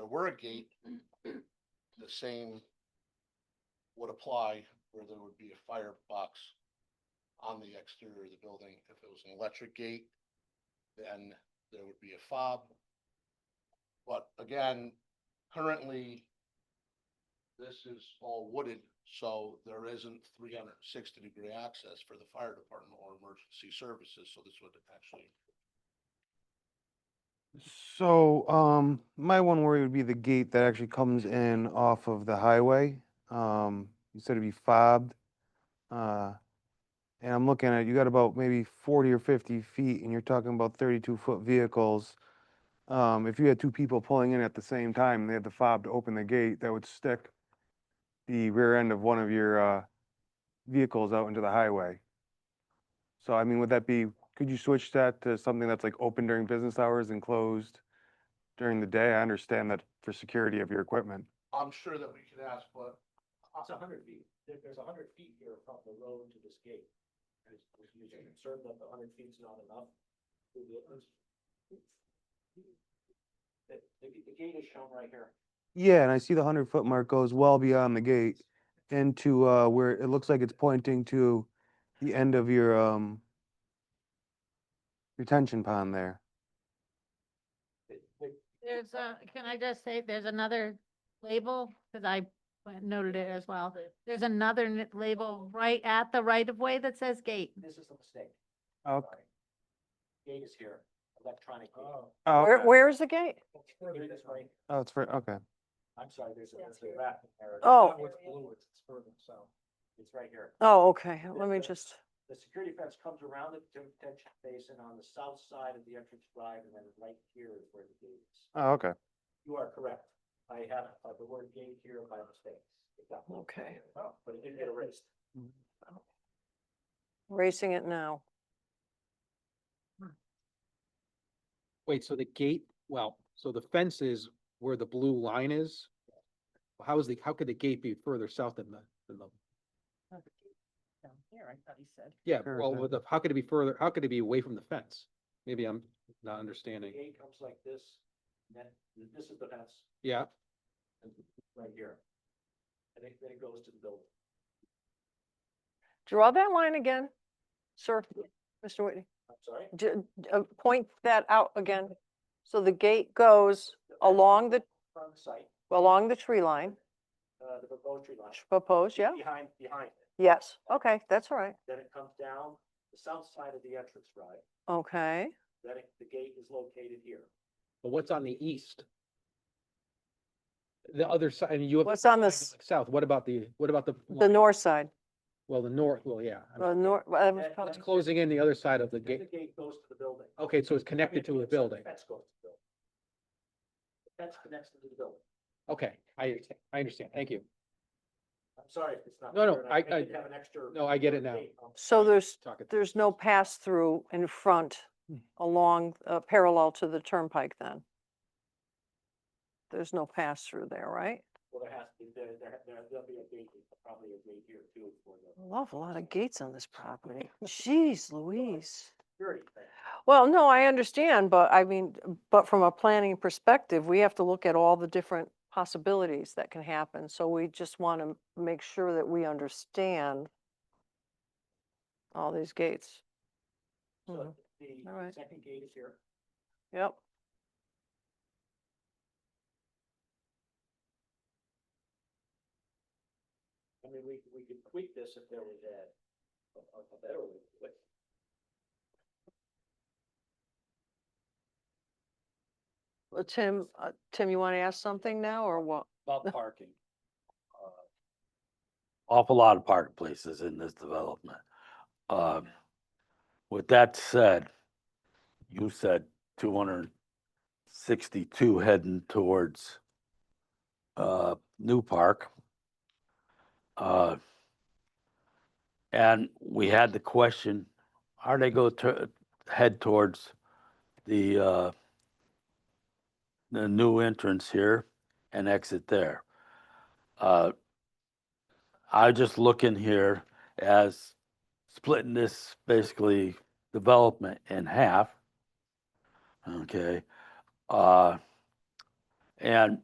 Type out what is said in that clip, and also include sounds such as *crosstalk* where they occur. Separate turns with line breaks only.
were a gate, the same would apply where there would be a firebox on the exterior of the building. If it was an electric gate, then there would be a fob. But again, currently, this is all wooded, so there isn't three hundred and sixty degree access for the fire department or emergency services, so this would actually
So, um, my one worry would be the gate that actually comes in off of the highway. Um, you said it'd be fobbed. Uh, and I'm looking at, you got about maybe forty or fifty feet and you're talking about thirty-two foot vehicles. Um, if you had two people pulling in at the same time and they had the fob to open the gate, that would stick the rear end of one of your, uh, vehicles out into the highway. So I mean, would that be, could you switch that to something that's like open during business hours and closed during the day? I understand that for security of your equipment.
I'm sure that we could ask, but.
It's a hundred feet, there, there's a hundred feet here from the road to this gate. And it's- if you're concerned that the hundred feet's not enough. to the entrance. The, the, the gate is shown right here.
Yeah, and I see the hundred foot mark goes well beyond the gate into uh where it looks like it's pointing to the end of your um retention pond there.
The- the-
There's a, can I just say, there's another label, because I noted it as well. There's another n- label right at the right of way that says gate.
This is a mistake.
Oh,
Sorry. Gate is here, electronic gate.
oh,
Where, where is the gate?
Here it is right-
oh, it's for, okay.
I'm sorry, there's a,
That's
there's a
here.
rat there.
Oh.
That one's blue, it's it's further south. It's right here.
Oh, okay, let me
the-
just,
The security fence comes around the detention basin on the south side of the entrance drive and then right here is where the gate is.
Oh, okay.
You are correct. I have uh, the word gate here by mistake. It got moved.
Okay.
Oh, But it did get erased.
racing it now.
Wait, so the gate, well, so the fence is where the blue line is? How is the, how could the gate be further south than the, than the,
Down here, I thought he said.
yeah,
Sure,
well,
sure.
with the, how could it be further, how could it be away from the fence? Maybe I'm not
The
understanding.
gate comes like this, and then th- this is the fence
Yeah,
right here. And then then it goes to the building.
Draw that line again, sir, Mr. Whitney.
I'm sorry.
Ju- uh, Point that out again. So the gate goes along the,
From the site,
along the tree line,
uh, the proposed tree line,
proposed, yeah?
behind, behind it.
Yes, okay, that's all right,
Then it comes down the south side of the entrance drive.
okay.
Then it- the gate is located here.
but what's on the east? The other side, and you have.
What's on the,
side
s-
going South, what about the, what about the?
the north side,
Well, the north, well, yeah. I mean,
the north, whatever it's
Yeah,
called.
It's closing in the other side of the
Then
gate.
The gate goes to the building.
Okay,
I
so it's
mean,
connected to the
it's-
building.
Fence goes to the building. The Fence connects to the building.
Okay, I, I understand. Thank you.
I'm sorry if it's not.
No, no,
clear, and
I-
didn't
I-
Have an extra.
No, I get it now.
date on-
So there's,
Talking-
there's no pass-through in front
Hmm.
along, uh, parallel to the turnpike then? There's no pass-through there, right?
Well, there has to be, there, there, there- there'll be a gate, probably a gate here too for the
Love a lot of gates on this *laughs* property. Jeez Louise.
security thing.
Well, no, I understand, but I mean, but from a planning perspective, we have to look at all the different possibilities that can happen. So we just want to make sure that we understand all these gates.
So
Mhm. All
the
right.
second gate is here.
Yep.
I mean, we, we could tweak this if there was a, a, a better way, to do it.
Well, Tim, uh, Tim, you want to ask something now or what?
About parking. Uh, Awful lot of park places in this development. Um, with that said, you said two hundred sixty-two heading towards uh, New Park. Uh, and we had the question, are they go to, head towards the uh, the new entrance here? and exit there. Uh, I just look in here as splitting this basically development in half. Okay, uh, and